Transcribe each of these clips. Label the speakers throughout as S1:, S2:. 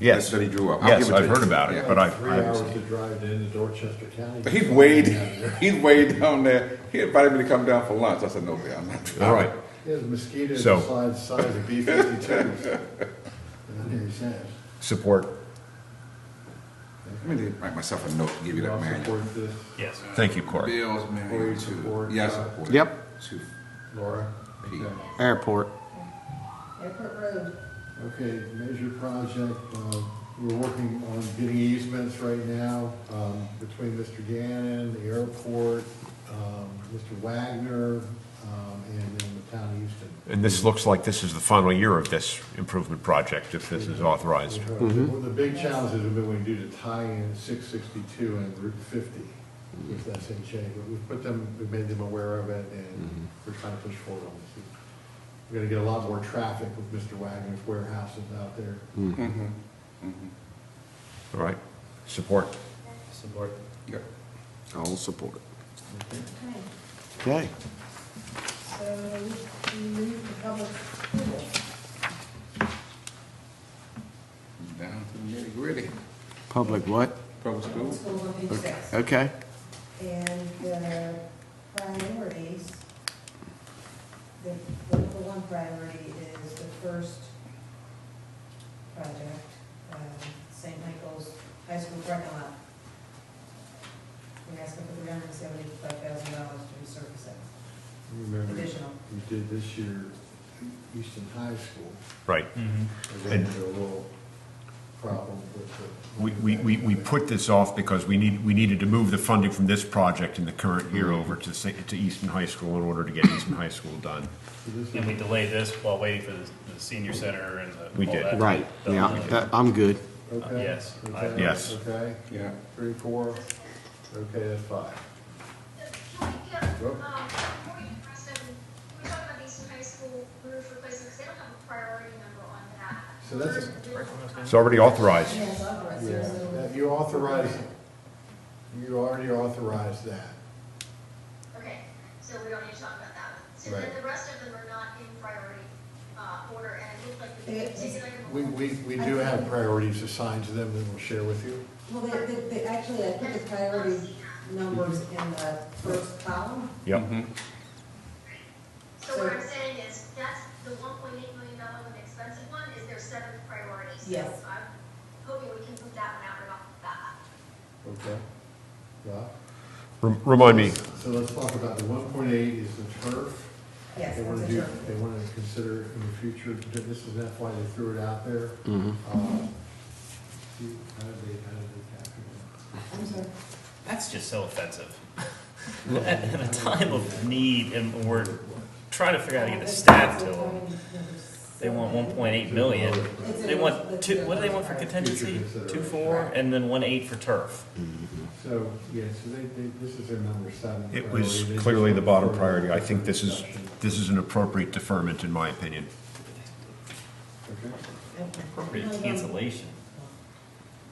S1: Yes.
S2: That he drew up. I'll
S1: Yes,
S2: give it to
S1: I've
S2: you.
S1: heard about it,
S2: Yeah.
S1: but I,
S3: Three
S1: I
S3: hours
S1: haven't
S3: to
S1: seen
S3: drive into Dorchester County.
S2: He's weighed, he's weighed down there. He invited me to come down for lunch. I said, no, Bill, I'm not
S1: it. All right,
S3: There's mosquitoes
S1: So-
S3: the size, size of B fifty-twos. And then he says,
S1: support,
S2: Let me write myself a note and give you
S3: "You
S2: that
S3: all
S2: manual.
S3: support this,
S4: Yes.
S1: thank you, Corey.
S2: Bill's married
S3: Board
S2: to,
S3: support,
S2: yes,
S3: uh,
S2: support.
S5: Yep.
S2: To
S3: Laura?"
S2: Pete.
S3: Okay.
S5: Airport.
S6: Airport Road,
S3: Okay, major project, uh, we're working on getting easements right now, um, between Mr. Gannon, the airport, um, Mr. Wagner, um, and then the town of Houston.
S1: And this looks like this is the final year of this improvement project, if this is authorized.
S3: One of the big challenges have been when you do the tie-in six sixty-two and Route fifty,
S1: Mm-hmm.
S3: if that's in shape, but we've put them, we've made them aware of it,
S1: Mm-hmm.
S3: and we're trying to push forward on this. We're gonna get a lot more traffic with Mr. Wagner's warehouses out there.
S1: Mm-hmm. All right, support.
S4: Support.
S2: Yep.
S5: I'll support it.
S6: okay,
S5: Okay.
S6: so we move to public hearing.
S2: Down to the nitty gritty.
S5: Public what?
S2: Public school.
S6: School on page six.
S5: Okay.
S6: And the priorities, the, the number one priority is the first project, um, St. Michael's High School parking lot. We're asking for three hundred and seventy-five thousand dollars to resurface it,
S3: Remember,
S6: additional.
S3: we did this year Houston High School,
S1: Right.
S3: and then there were a little problem with the.
S1: We, we, we we put this off because we need, we needed to move the funding from this project in the current year over to, Sa- to Easton High School in order to get Easton High School done.
S3: So this is-
S4: And we delayed this while waiting for the the senior center and the.
S1: We
S4: all
S1: did.
S4: that.
S5: Right.
S4: The-
S5: Yeah, that- I'm good.
S3: Okay.
S4: yes, I-
S3: Okay,
S1: Yes.
S3: Okay.
S2: Yeah.
S3: Three, four, okay, that's five.
S7: Can we get, um,
S3: Go.
S7: before you press them, can we talk about Eastern High School roof replacement, 'Cause they don't have a priority number on that.
S3: So that's a-
S1: It's already authorized.
S6: Yes, authorized,
S3: Yeah,
S6: so-
S3: that- you authorize, you already authorized that.
S7: Okay, so we don't need to talk about that one. So then
S3: Right.
S7: the rest of them are not in priority, uh, order, and it looked like, the-
S6: Yeah,
S7: it seemed like. a-
S3: We, we, we do have priorities assigned to them that we'll share with you.
S6: Well, they, they, they, actually, I put the priority numbers in the first column.
S1: Yep.
S7: So what I'm saying is, that's the one point eight million dollar one, the expensive one, is their seventh priority. So
S6: Yes.
S7: I'm hoping we can put that one out and off the bat.
S3: Okay. Yeah.
S1: Rem- Remind me,
S3: So let's talk about the one point eight is the turf.
S6: Yes,
S3: They want to
S6: that's
S3: do,
S6: a term.
S3: they want to consider in the future, this is not why they threw it out there.
S1: Mm-hmm.
S3: Um, do- How did they, how did they capture that?
S6: I'm sorry.
S4: That's just so offensive. At at a time of need, and we're trying to figure out how to get the staff to them. They want one point eight million. They want two, what do they want for contingency? Two four, and then one eight for turf.
S3: So, yeah, so they, they, this is their number seven.
S1: it
S3: priority.
S1: was
S3: They just
S1: clearly the
S3: want
S1: bottom
S3: further
S1: priority. I think this is,
S3: discussion.
S1: this is an appropriate deferment, in my opinion.
S3: Okay.
S4: Appropriate cancellation.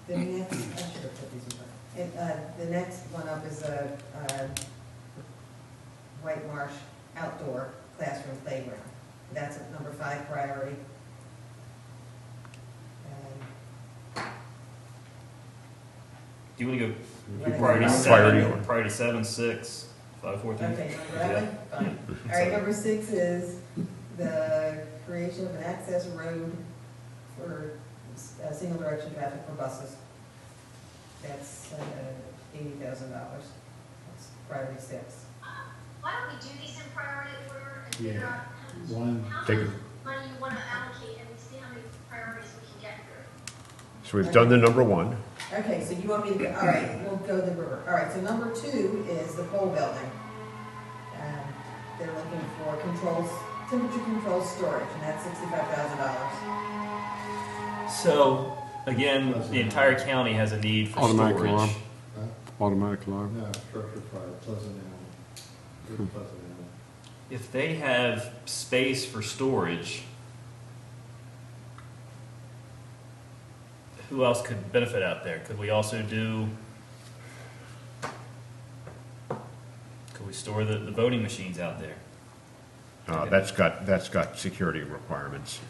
S6: The next, I should have put these in front. It, uh, the next one up is a, uh, White Marsh outdoor classroom playground. That's at number five priority. Um,
S4: Do you want to go
S6: Priority
S4: priority
S6: seven.
S1: Priority
S4: seven,
S1: order.
S4: priority seven, six, five, four, three?
S6: Okay, number
S4: Yeah.
S6: eleven, fine. All right, number six is the creation of an access road for, uh, single direction traffic for buses. That's, uh, eighty thousand dollars. That's priority six.
S7: Why don't we do these in priority order and figure
S3: Yeah.
S7: out how
S3: One,
S7: much, how
S1: Take
S7: much
S1: it.
S7: money you wanna allocate and see how many priorities we can get through?
S1: So we've done the number one.
S6: Okay, so you want me to, go all right, we'll go the river. All right, so number two is the pole building. Um, They're looking for controls, temperature control storage, and that's sixty-five thousand dollars.
S4: So, again, the entire county has a need for
S5: Automatic alarm.
S4: storage.
S3: huh?
S5: Automatic alarm.
S3: No, structure uh, fire, Pleasant Island. Good Pleasant Island.
S4: If they have space for storage, who else could benefit out there? Could we also do? Could we store the, the voting machines out there?
S1: Uh, that's got, that's got security requirements.